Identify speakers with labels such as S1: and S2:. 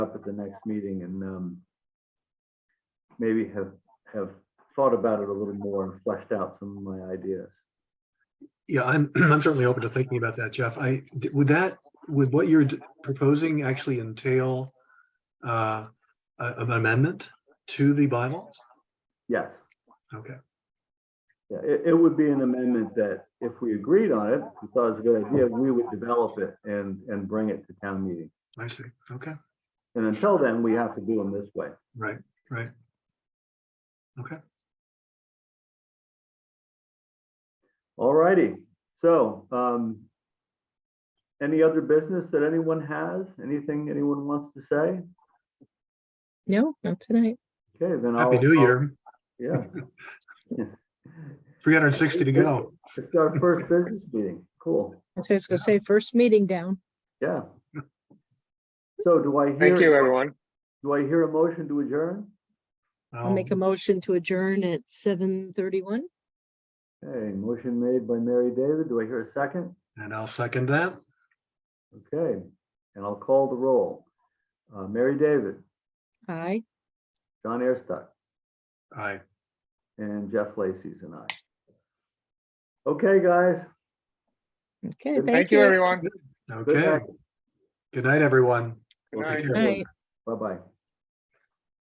S1: up at the next meeting and um, maybe have, have thought about it a little more and fleshed out some of my ideas.
S2: Yeah, I'm, I'm certainly open to thinking about that, Jeff. I, would that, would what you're d- proposing actually entail uh, a- an amendment to the bylaws?
S1: Yes,
S2: Okay,
S1: yeah, it, it would be an amendment that if we agreed on it, we thought it was a good idea, we would develop it and, and bring it to town meeting.
S2: I see. Okay,
S1: And until then, we have to do them this way.
S2: right, right. Okay,
S1: All righty, so, um, any other business that anyone has, anything anyone wants to say?
S3: No, not tonight.
S1: Okay, then I'll.
S2: happy new
S1: I'll-
S2: year.
S1: Yeah.
S2: 360 to go.
S1: It's our first business meeting. Cool.
S3: That's what I was gonna
S2: Yeah.
S3: say, first meeting down.
S1: Yeah. So do I hear?
S4: Thank you, everyone.
S1: Do I hear a motion to adjourn?
S3: I'll
S4: Um.
S3: make a motion to adjourn at seven thirty-one.
S1: Okay, motion made by Mary David. Do I hear a second?
S2: And I'll second that.
S1: Okay, and I'll call the roll. Uh, Mary David,
S3: Aye.
S1: John Airstock,
S2: Aye.
S1: and Jeff Lacy's and I. Okay, guys.
S3: Okay,
S1: Good.
S3: thank
S4: Thank you,
S3: you.
S4: everyone.
S2: Okay.
S1: night.
S2: Good night, everyone. Take
S4: Good night.
S2: care.
S3: Night.
S1: Bye-bye.